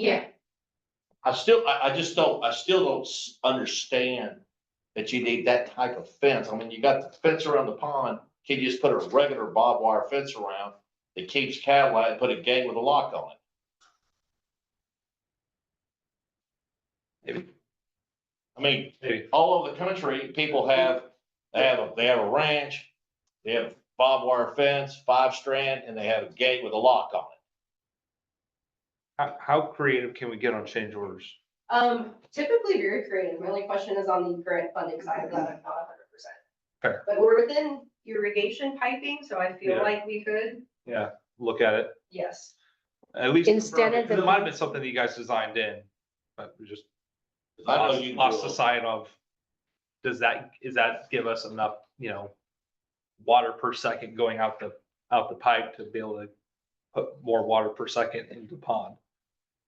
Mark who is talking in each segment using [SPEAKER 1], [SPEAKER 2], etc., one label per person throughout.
[SPEAKER 1] Yeah,
[SPEAKER 2] I still, I, I just don't, I still don't s- understand that you need that type of fence. I mean, you got the fence around the pond. Can you just put a regular barbed wire fence around that keeps cattle out and put a gate with a lock on it? I mean,
[SPEAKER 3] Maybe.
[SPEAKER 2] all over the country, people have, they have, a they have a ranch, they have barbed wire fence, five strand, and they have a gate with a lock on it.
[SPEAKER 3] How, how creative can we get on change orders?
[SPEAKER 1] um, typically very creative. My only question is on the grant funding side of that, I'm not hundred percent.
[SPEAKER 3] Fair.
[SPEAKER 1] But we're within irrigation piping, so I feel
[SPEAKER 3] Yeah.
[SPEAKER 1] like we could,
[SPEAKER 3] Look at it,
[SPEAKER 1] yes.
[SPEAKER 3] at least.
[SPEAKER 4] Instead of
[SPEAKER 3] It
[SPEAKER 4] the-
[SPEAKER 3] might have been something that you guys designed in, but we just
[SPEAKER 2] 'Cause I know
[SPEAKER 3] lost,
[SPEAKER 2] you can
[SPEAKER 3] lost
[SPEAKER 2] do
[SPEAKER 3] the
[SPEAKER 2] a-
[SPEAKER 3] sight of. Does that, is that give us enough, you know, water per second going out the, out the pipe to be able to put more water per second into the pond?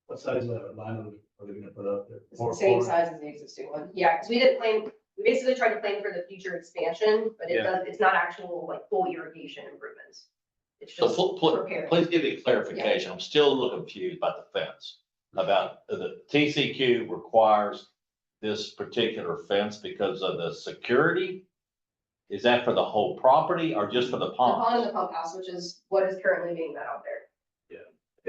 [SPEAKER 5] What size of that line are they gonna put up there?
[SPEAKER 1] It's
[SPEAKER 5] Four-
[SPEAKER 1] the same
[SPEAKER 5] four-
[SPEAKER 1] size as the existing one. Yeah, because we didn't plan, we basically tried to plan for the future expansion, but it
[SPEAKER 3] Yeah.
[SPEAKER 1] does, it's not actual like full irrigation improvements. It's
[SPEAKER 2] So
[SPEAKER 1] just
[SPEAKER 2] pl- pl-
[SPEAKER 1] repair.
[SPEAKER 2] please give me clarification. I'm still a little confused about the fence. About the TCQ requires this particular fence because of the security? Is that for the whole property or just for the
[SPEAKER 1] The pond and
[SPEAKER 2] pond?
[SPEAKER 1] the pump house, which is what is currently being met out there.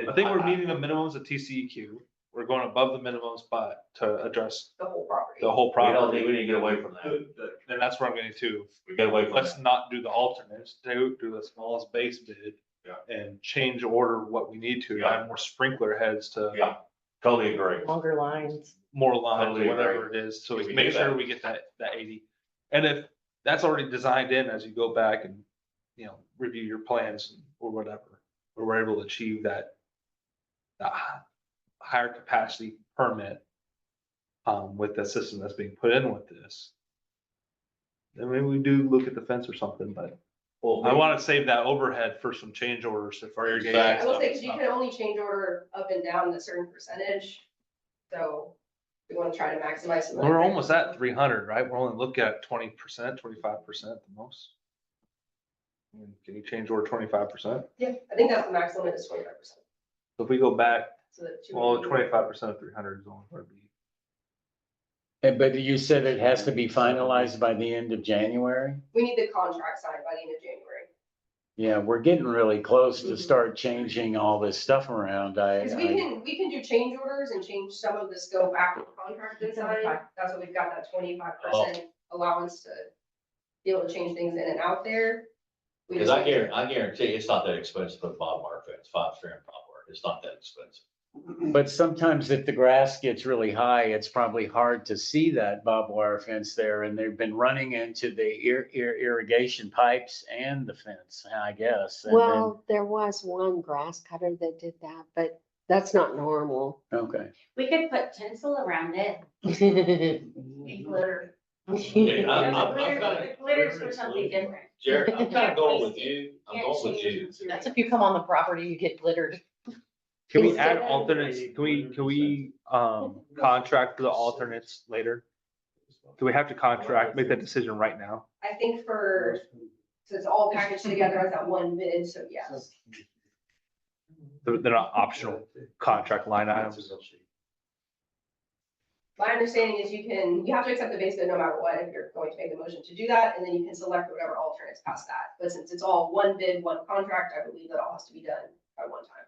[SPEAKER 3] I think we're meeting the minimums of TCEQ. We're going above the minimums, but to address
[SPEAKER 1] the whole property.
[SPEAKER 3] the whole
[SPEAKER 2] We don't need,
[SPEAKER 3] property.
[SPEAKER 2] we need to get away from that.
[SPEAKER 3] And that's where I'm getting to.
[SPEAKER 2] We get away from
[SPEAKER 3] let's
[SPEAKER 2] that.
[SPEAKER 3] not do the alternates, do, do the smallest base bid.
[SPEAKER 2] Yeah.
[SPEAKER 3] And change order what we need to,
[SPEAKER 2] Yeah.
[SPEAKER 3] add more sprinkler heads to
[SPEAKER 2] Yeah, totally agree.
[SPEAKER 4] longer lines.
[SPEAKER 3] more lines,
[SPEAKER 2] Totally agree.
[SPEAKER 3] whatever it is, so
[SPEAKER 2] If we
[SPEAKER 3] we can
[SPEAKER 2] do
[SPEAKER 3] make sure
[SPEAKER 2] that.
[SPEAKER 3] we get that, that eighty. And if that's already designed in, as you go back and, you know, review your plans or whatever, where we're able to achieve that. that hi- higher capacity permit. Um, with the system that's being put in with this. Then maybe we do look at the fence or something, but. I want to save that overhead for some change orders if our irrigation.
[SPEAKER 1] I will say, because you
[SPEAKER 3] stuff
[SPEAKER 1] can only change order up and down a certain percentage, so we want to try to maximize.
[SPEAKER 3] is-
[SPEAKER 1] some of that.
[SPEAKER 3] We're almost at three hundred, right? We're only looking at twenty percent, twenty-five percent the most. I mean, Can you change order twenty-five percent?
[SPEAKER 1] Yeah, I think that's the max limit is twenty-five percent,
[SPEAKER 3] If we go back,
[SPEAKER 1] so that. two
[SPEAKER 3] well,
[SPEAKER 1] would be-
[SPEAKER 3] twenty-five percent of three hundred is only going to be.
[SPEAKER 6] And but you said it has to be finalized by the end of January?
[SPEAKER 1] We need the contract signed by the end of January,
[SPEAKER 6] Yeah, we're getting really close to start changing all this stuff around. I,
[SPEAKER 1] because we
[SPEAKER 6] I,
[SPEAKER 1] can, we can do change orders and change some of the scope after the contract is signed, that's what we've got, that twenty-five percent allowance to be able to change things in and out there. We
[SPEAKER 2] Because
[SPEAKER 1] just-
[SPEAKER 2] I guarantee, I guarantee it's not that expensive to put barbed wire fence, five strand barbed wire. It's not that expensive.
[SPEAKER 6] but sometimes if the grass gets really high, it's probably hard to see that barbed wire fence there. And they've been running into the ir- ir- irrigation pipes and the fence, I guess. and then-
[SPEAKER 4] Well, there was one grass cutter that did that, but that's not normal.
[SPEAKER 6] Okay,
[SPEAKER 7] We could put tinsel around it and glitter.
[SPEAKER 2] Yeah, I'm- I'm- I'm kinda-
[SPEAKER 7] Glitter- Glitter's for something different.
[SPEAKER 2] Jared, I'm kind of
[SPEAKER 7] Can't
[SPEAKER 2] going
[SPEAKER 7] waste
[SPEAKER 2] with
[SPEAKER 7] it.
[SPEAKER 2] you. I'm
[SPEAKER 7] Can't
[SPEAKER 2] going with
[SPEAKER 7] change
[SPEAKER 2] you.
[SPEAKER 7] material.
[SPEAKER 8] That's if you come on the property, you get glittered.
[SPEAKER 3] Can we
[SPEAKER 4] Instead
[SPEAKER 3] add
[SPEAKER 4] of-
[SPEAKER 3] alternates? Can we, can we, um, contract for the alternates later? Do we have to contract, make that decision right now?
[SPEAKER 1] I think for, so it's all packaged together as that one bid, so yes.
[SPEAKER 3] They're, they're not optional contract line items.
[SPEAKER 1] My understanding is you can, you have to accept the base bid no matter what, if you're going to make the motion to do that, and then you can select whatever alternates past that. But since it's all one bid, one contract, I believe that all has to be done by one time.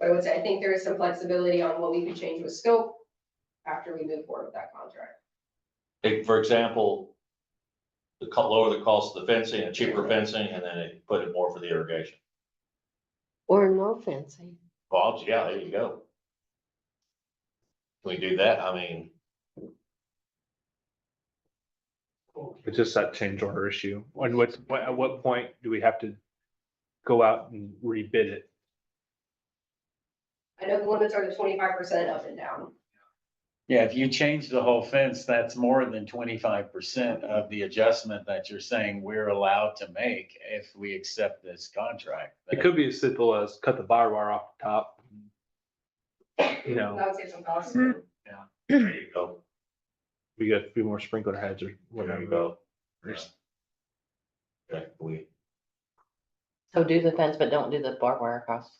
[SPEAKER 1] But I would say, I think there is some flexibility on what we could change with scope after we move forward with that contract.
[SPEAKER 2] Like, for example, the co- lower the cost of the fencing and cheaper fencing, and then it put it more for the irrigation.
[SPEAKER 4] Or no fencing.
[SPEAKER 2] Well, yeah, there you go. Can we do that? I mean,
[SPEAKER 3] It's just that change order issue. And what's, what- at what point do we have to go out and rebid it?
[SPEAKER 1] I know the limits are the twenty-five percent up and down.
[SPEAKER 6] yeah, if you change the whole fence, that's more than twenty-five percent of the adjustment that you're saying we're allowed to make if we accept this contract.
[SPEAKER 3] It could be as simple as cut the barbed wire off the top. You
[SPEAKER 1] That
[SPEAKER 3] know,
[SPEAKER 1] would save some costs.
[SPEAKER 2] there you go.
[SPEAKER 3] we got a few more sprinkler heads or
[SPEAKER 2] There you
[SPEAKER 3] whatever.
[SPEAKER 2] go. Yeah. Okay, we,
[SPEAKER 8] So do the fence, but don't do the barbed wire across.